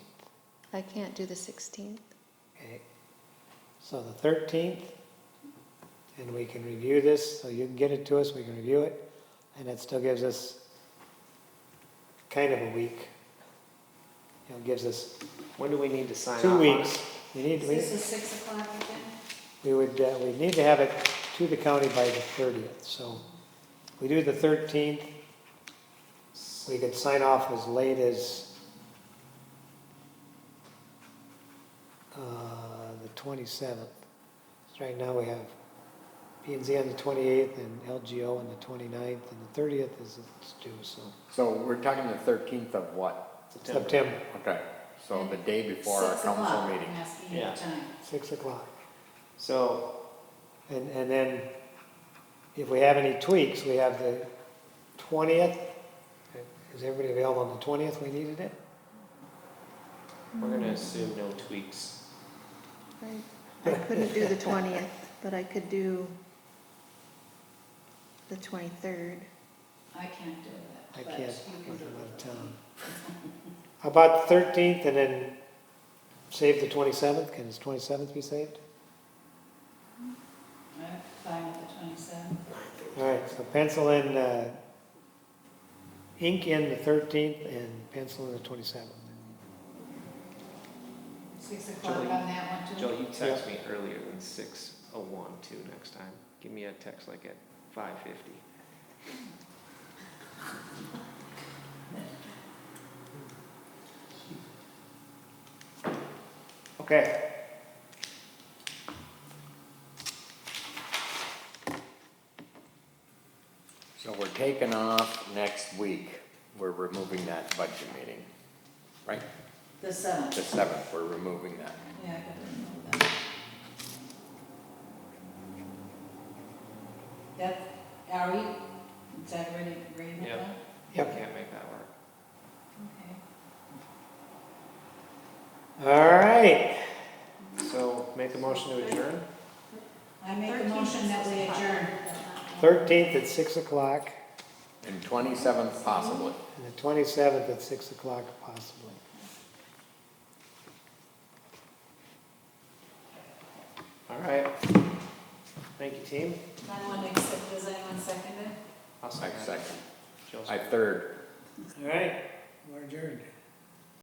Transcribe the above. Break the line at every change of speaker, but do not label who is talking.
I can't do the 16th.
Okay, so the thirteenth, and we can review this, so you can get it to us, we can review it, and that still gives us kind of a week. You know, gives us
When do we need to sign off?
two
on it?
weeks. We need, we,
This is six o'clock again?
we would, uh, we need to have it to the county by the thirtieth, so we do the thirteenth. We could sign off as late as uh, the twenty-seventh. Right now, we have P and Z on the twenty-eighth and LGO on the twenty-ninth, and the thirtieth is it's due, so
So we're talking the thirteenth of what?
September,
Okay, so the day before our council meeting.
Six o'clock, I'm asking you
Yeah.
the time.
six o'clock.
So,
And, and then if we have any tweaks, we have the twentieth. Is everybody available on the twentieth? We needed it.
Mm-hmm.
we're gonna assume no tweaks.
I I couldn't do the 20th, but I could do the 23rd.
I can't do
I
that, but
can't,
you can
I'm
do
out of
it.
town. How About the thirteenth and then save the twenty-seventh. Can the twenty-seventh be saved?
I'm fine with the twenty-seventh.
All right, so pencil in, uh, ink in the thirteenth and pencil in the twenty-seventh.
Six o'clock on
Julie-
that one,
Joel,
too?
you text me earlier than six oh one too next time. Give me a text like at five fifty.
Okay.
So we're taking off next week. We're removing that budget meeting, right?
The
The
seventh,
seventh, we're removing that.
yeah, I could remove that. That, are we, is that ready, ready with
Yeah.
that?
Yep.
Can't make that work.
Okay.
All right.
So make a motion to adjourn?
I make a motion that we adjourn.
Thirteenth at six o'clock
And twenty-seventh possibly.
and the twenty-seventh at six o'clock possibly.
All right. Thank you, team.
I want to accept, does anyone second it?
I'll
I
second.
second.
Joel's-
I third.
All right, we're adjourned.